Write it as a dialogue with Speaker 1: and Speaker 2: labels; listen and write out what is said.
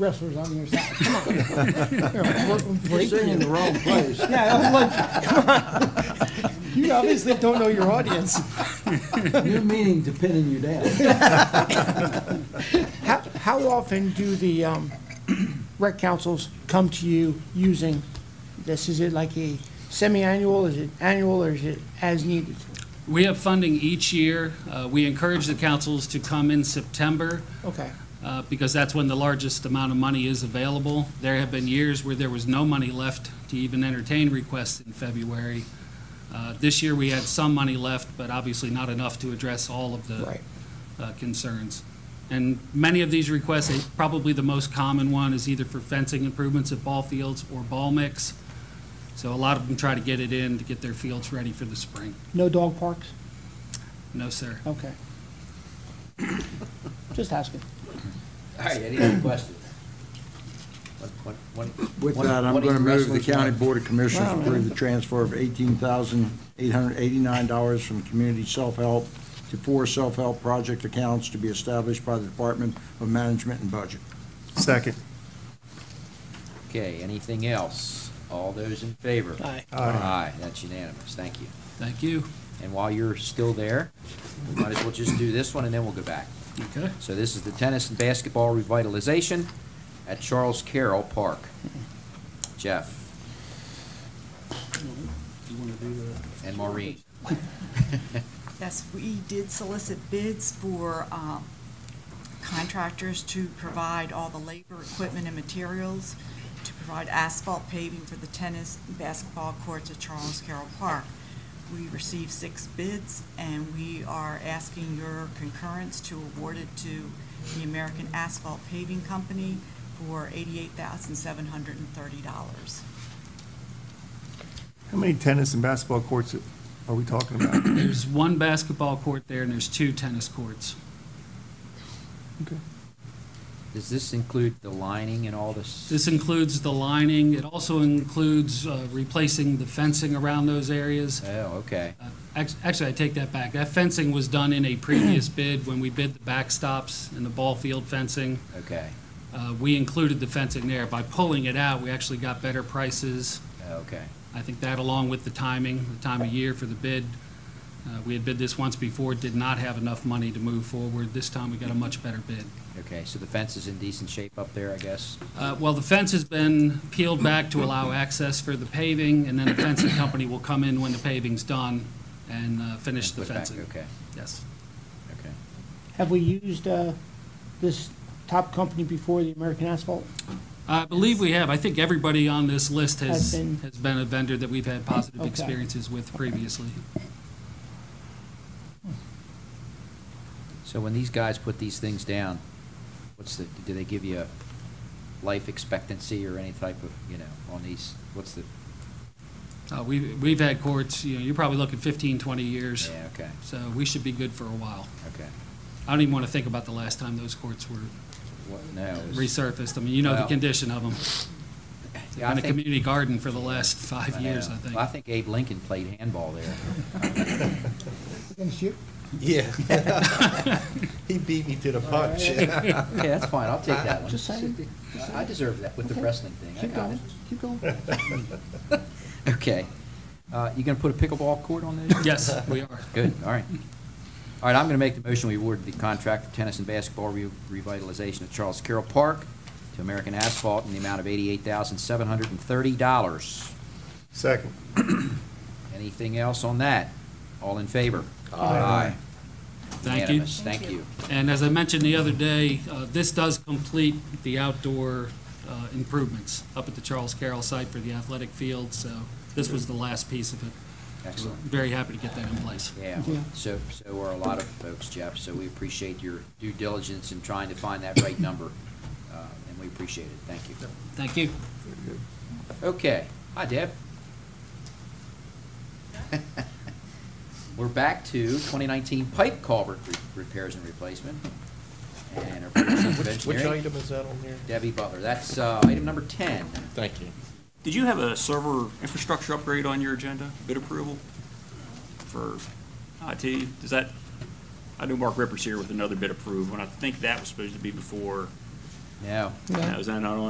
Speaker 1: wrestlers on your side. Come on.
Speaker 2: You're singing the wrong place.
Speaker 1: Yeah, I was like, you obviously don't know your audience.
Speaker 2: You're meaning to pin in you down.
Speaker 1: How, how often do the um, rec councils come to you using this? Is it like a semi-annual, is it annual, or is it as needed?
Speaker 3: We have funding each year. Uh, We encourage the councils to come in September
Speaker 1: Okay,
Speaker 3: uh, because that's when the largest amount of money is available. There have been years where there was no money left to even entertain requests in February. Uh, This year, we had some money left, but obviously not enough to address all of the
Speaker 1: right.
Speaker 3: uh, concerns. And many of these requests, eh, probably the most common one is either for fencing improvements at ball fields or ball mix. So a lot of them try to get it in to get their fields ready for the spring.
Speaker 1: No dog parks?
Speaker 3: No, sir.
Speaker 1: Okay. Just asking.
Speaker 4: All right, any other questions?
Speaker 2: With that, I'm going to move the county board of commissioners approve the transfer of $18,889 from community self-help to four self-help project accounts to be established by the Department of Management and Budget.
Speaker 5: Second.
Speaker 4: Okay, anything else? All those in favor?
Speaker 1: Aye.
Speaker 5: Aye.
Speaker 4: Aye, that's unanimous, thank you.
Speaker 3: Thank you.
Speaker 4: And while you're still there, we might as well just do this one and then we'll go back.
Speaker 3: Okay.
Speaker 4: So this is the tennis and basketball revitalization at Charles Carroll Park. Jeff
Speaker 3: You want to do the?
Speaker 4: and Maureen.
Speaker 6: Yes, we did solicit bids for um, contractors to provide all the labor, equipment, and materials to provide asphalt paving for the tennis and basketball courts at Charles Carroll Park. We received six bids, and we are asking your concurrence to award it to the American Asphalt Paving Company for $88,730.
Speaker 5: How many tennis and basketball courts are we talking about?
Speaker 3: There's one basketball court there and there's two tennis courts.
Speaker 5: Okay.
Speaker 4: Does this include the lining and all this?
Speaker 3: This includes the lining. It also includes uh, replacing the fencing around those areas.
Speaker 4: Oh, okay.
Speaker 3: Uh, act- Actually, I take that back. That fencing was done in a previous bid when we bid the backstops and the ball field fencing.
Speaker 4: Okay,
Speaker 3: Uh, We included the fencing there. By pulling it out, we actually got better prices.
Speaker 4: okay.
Speaker 3: I think that along with the timing, the time of year for the bid. uh, We had bid this once before, did not have enough money to move forward. This time, we got a much better bid.
Speaker 4: Okay, so the fence is in decent shape up there, I guess?
Speaker 3: Uh, Well, the fence has been peeled back to allow access for the paving, and then the fencing company will come in when the paving's done and uh, finish
Speaker 4: And
Speaker 3: the
Speaker 4: put back,
Speaker 3: fencing.
Speaker 4: Okay,
Speaker 3: Yes.
Speaker 4: okay.
Speaker 1: Have we used uh, this top company before, the American Asphalt?
Speaker 3: I believe we have. I think everybody on this list has,
Speaker 1: Has been-
Speaker 3: has been a vendor that we've had positive
Speaker 1: Okay.
Speaker 3: experiences with previously.
Speaker 4: So when these guys put these things down, what's the, do they give you a life expectancy or any type of, you know, on these, what's the,
Speaker 3: Uh, we- We've had courts, you know, you're probably looking 15, 20 years,
Speaker 4: yeah, okay,
Speaker 3: so we should be good for a while.
Speaker 4: okay.
Speaker 3: I don't even want to think about the last time those courts were
Speaker 4: What, no. it was-
Speaker 3: resurfaced. I mean, you know the
Speaker 4: Well-
Speaker 3: condition of them. It's
Speaker 4: Yeah, I
Speaker 3: been a
Speaker 4: think-
Speaker 3: community garden for the last
Speaker 4: I
Speaker 3: five years,
Speaker 4: know.
Speaker 3: I think.
Speaker 4: Well, I think Abe Lincoln played handball there.
Speaker 1: Against you?
Speaker 7: Yeah. He beat me to the punch.
Speaker 4: Okay, that's fine, I'll take that one.
Speaker 1: Just saying.
Speaker 4: I deserve that with the wrestling thing, I
Speaker 1: Keep
Speaker 4: got
Speaker 1: going,
Speaker 4: it.
Speaker 1: keep going.
Speaker 4: Okay. Uh, you gonna put a pickleball court on there?
Speaker 3: Yes, we are.
Speaker 4: Good, all right. All right, I'm going to make the motion, we award the contract for tennis and basketball re- revitalization of Charles Carroll Park to American Asphalt in the amount of eighty-eight thousand, seven hundred and thirty dollars.
Speaker 5: Second.
Speaker 4: Anything else on that? All in favor?
Speaker 5: Aye.
Speaker 3: Thank you.
Speaker 4: Unanimous, thank you.
Speaker 3: And as I mentioned the other day, uh, this does complete the outdoor uh, improvements up at the Charles Carroll site for the athletic field, so this was the last piece of it. So
Speaker 4: Excellent.
Speaker 3: Very happy to get that in place.
Speaker 4: Yeah,
Speaker 1: Yeah.
Speaker 4: so, so are a lot of folks, Jeff, so we appreciate your due diligence in trying to find that right number, uh, and we appreciate it, thank you.
Speaker 3: Thank you.
Speaker 4: Okay, hi Deb. We're back to 2019 pipe culvert re- repairs and replacement. And our producer of
Speaker 7: Which
Speaker 4: engineering,
Speaker 7: item is that on here?
Speaker 4: Debbie Butler, that's uh, item number 10.
Speaker 7: Thank you.
Speaker 8: Did you have a server infrastructure upgrade on your agenda, bid approval for IT? Does that, I knew Mark Ripper's here with another bid approved, and I think that was supposed to be before
Speaker 4: No.
Speaker 8: Now, Is that not on